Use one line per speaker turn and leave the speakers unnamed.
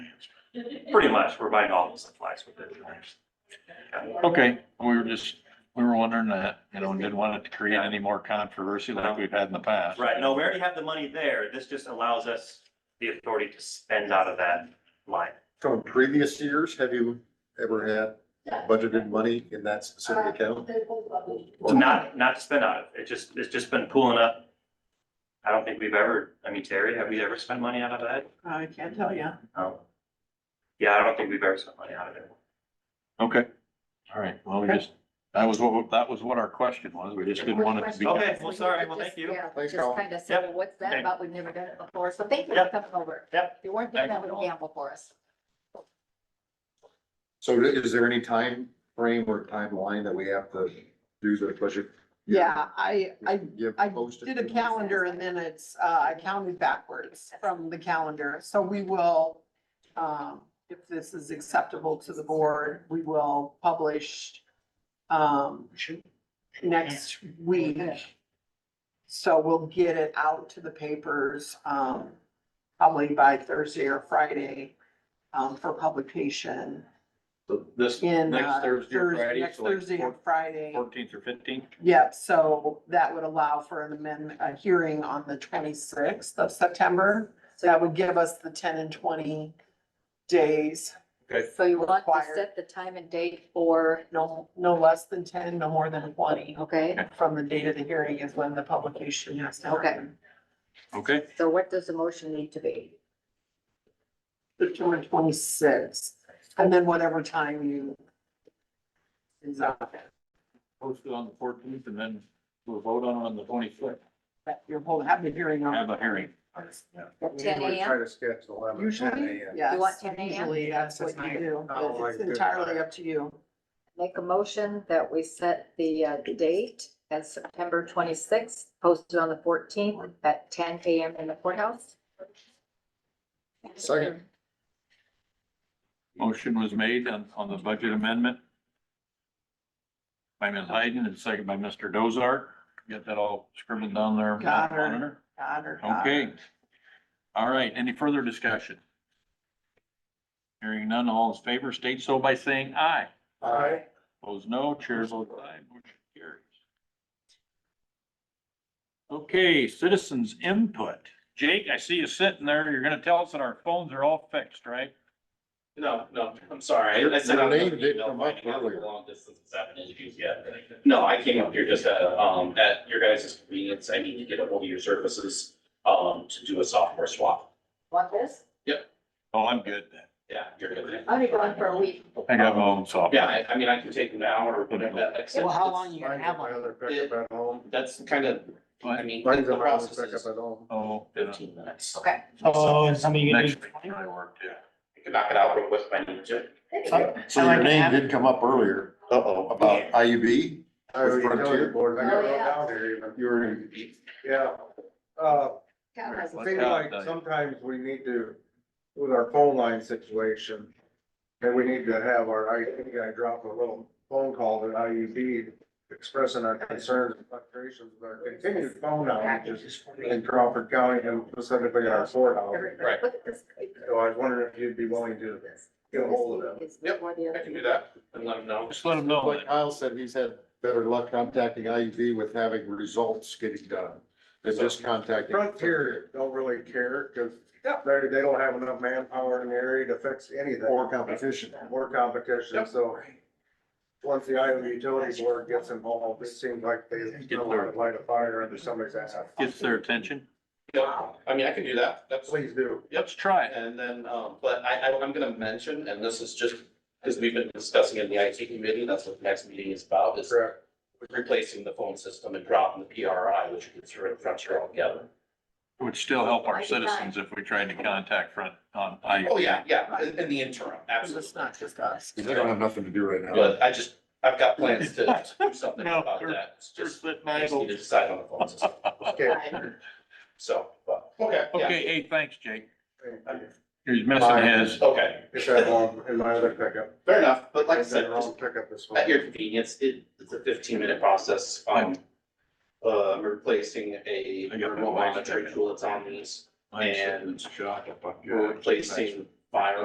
pretty much, we're buying all the supplies with it.
Okay, we were just, we were wondering that, you know, and didn't want it to create any more controversy like we've had in the past.
Right, no, we already have the money there, this just allows us the authority to spend out of that line.
From previous years, have you ever had budgeted money in that specific
Uh-huh.
account?
It's Not, not to spend out of, it just, it's just been pooling up. I don't think we've ever, I mean, Terry, have we ever spent money out of that?
Oh, I can't tell you.
No. Yeah, I don't think we've ever spent money out of it.
Okay, all right, well, we just, that was what, that was what our question was, we just didn't want it to be.
Okay, well, sorry, well, thank you.
Yeah,
Thanks,
Just
Colin.
kind of said, well, what's that
Yep.
about? We've never done it before. So thank you for
Yep.
coming over.
Yep.
If you weren't doing that, would gamble for us.
So is there any time frame or timeline that we have to do the budget?
Yeah, I, I
Give
I
posted?
did a calendar and then it's, uh, I counted backwards from the calendar, so we will, um, if this is acceptable to the board, we will publish, um, next week. So we'll get it out to the papers, um, probably by Thursday or Friday, um, for publication
So This
in,
next
uh,
Thursday or
Thursday,
Friday,
next
so like
Thursday or
four-
Friday.
fourteenth or fifteenth?
Yep, so that would allow for an amendment, a hearing on the twenty-sixth of September. So that would give us the ten and twenty days,
So you want to
Required.
set the time and date for,
no, no less than ten, no more than twenty.
okay?
From the date of the hearing is when the publication has to
Okay.
happen.
Okay,
So what does the motion need to be?
September twenty-sixth, and then whatever time you is up,
post it on the fourteenth and then we'll vote on it on the twenty-fifth,
Uh-huh. that you're holding, have the hearing on.
have a hearing.
At ten
Usually Try
AM?
to sketch eleven.
Usually,
10 a.m.
yes.
You want 10 a.m.?
Usually, that's what you do.
I don't Oh, like
It's
this.
entirely up to you.
Make a motion that we set the uh, date as September twenty-sixth, posted on the fourteenth at ten AM in the courthouse.
Second.
Motion was made on, on the budget amendment by Ms. Hayden and second by Mr. Dozart. Get that all scribbled down there.
Got her.
Monitor.
God or not.
Okay. All right, any further discussion? Hearing none, all in favor, state so by saying aye.
Aye.
Opposed, no. Chair votes aye, motion carries. Okay, citizens input. Jake, I see you sitting there. You're gonna tell us that our phones are all fixed, right?
No, no, I'm sorry. I- I said
Your
I'm not
name
gonna
did
email
come up
finding out
earlier.
the Long distance is having issues yet. No, I came up here just at, um, at your guys' convenience. I need to get a hold of your services, um, to do a software swap.
Want this?
Oh, I'm good then.
Yeah, you're good.
I'll be gone for a week.
I got my own software.
Yeah, I, I mean, I can take an hour or whatever that takes.
Well, how long you gonna
Mine's
have
my
on?
other pickup at home.
That's kind of, I mean,
Mine's
the
a round
process
pickup
is
at home.
Oh, yeah.
fifteen minutes.
Okay.
Oh, and some of you.
next week I work too.
I can knock it out real quick if I need to.
So your name did come up earlier. Uh-oh. About IUB?
I already told the board, I got
Oh,
it
yeah.
down there even,
You were in
yeah. Uh,
Got
I
it.
Let's
think
go,
like
Doug.
sometimes we need to, with our phone line situation, and we need to have our IT guy drop a little phone call to IUB expressing our concerns and frustrations about continued phone outages in Crawford County and specifically our courthouse.
Right.
Look at this.
So I was wondering if you'd be willing to get a hold of them.
Yep,
I
I can do that and let them know.
Just let them know.
Like Kyle said, he's had better luck contacting IUB with having results getting done than just contacting.
Frontier don't really care, cause they, they don't have enough manpower in the area to fix anything.
Or competition.
more competition,
Yep.
so. Once the Iowa Utilities Board gets involved, it seems like they still want to light a fire under somebody's ass.
Gets their attention.
Yep, I mean, I can do that. That's.
Please do.
Yep.
Let's try it.
And then, um, but I, I, I'm gonna mention, and this is just, because we've been discussing in the IT committee, that's what the next meeting is about, is
Correct.
replacing the phone system and dropping the PRI, which gets rid of Frontier altogether.
It Would still help our citizens if we tried to contact front on I.
Oh, yeah, yeah, in, in the interim,
Because it's
absolutely.
not just us.
They don't have nothing to do right now.
But I just, I've got plans to to do something
No,
about
you're-
that. It's just,
sitting
I just need to decide on the phone system.
Okay.
So, but, okay, yeah.
Okay, hey, thanks, Jake.
Thank you.
He's missing his.
Okay,
It's at home in my other pickup.
fair enough, but like I
It's at
said, just
home pickup this
At your
morning.
convenience, it, it's a fifteen minute process, um, uh, replacing a
I got my
remote
wife's
monitoring
checking.
tool that's on these. And
Shot.
we're replacing fire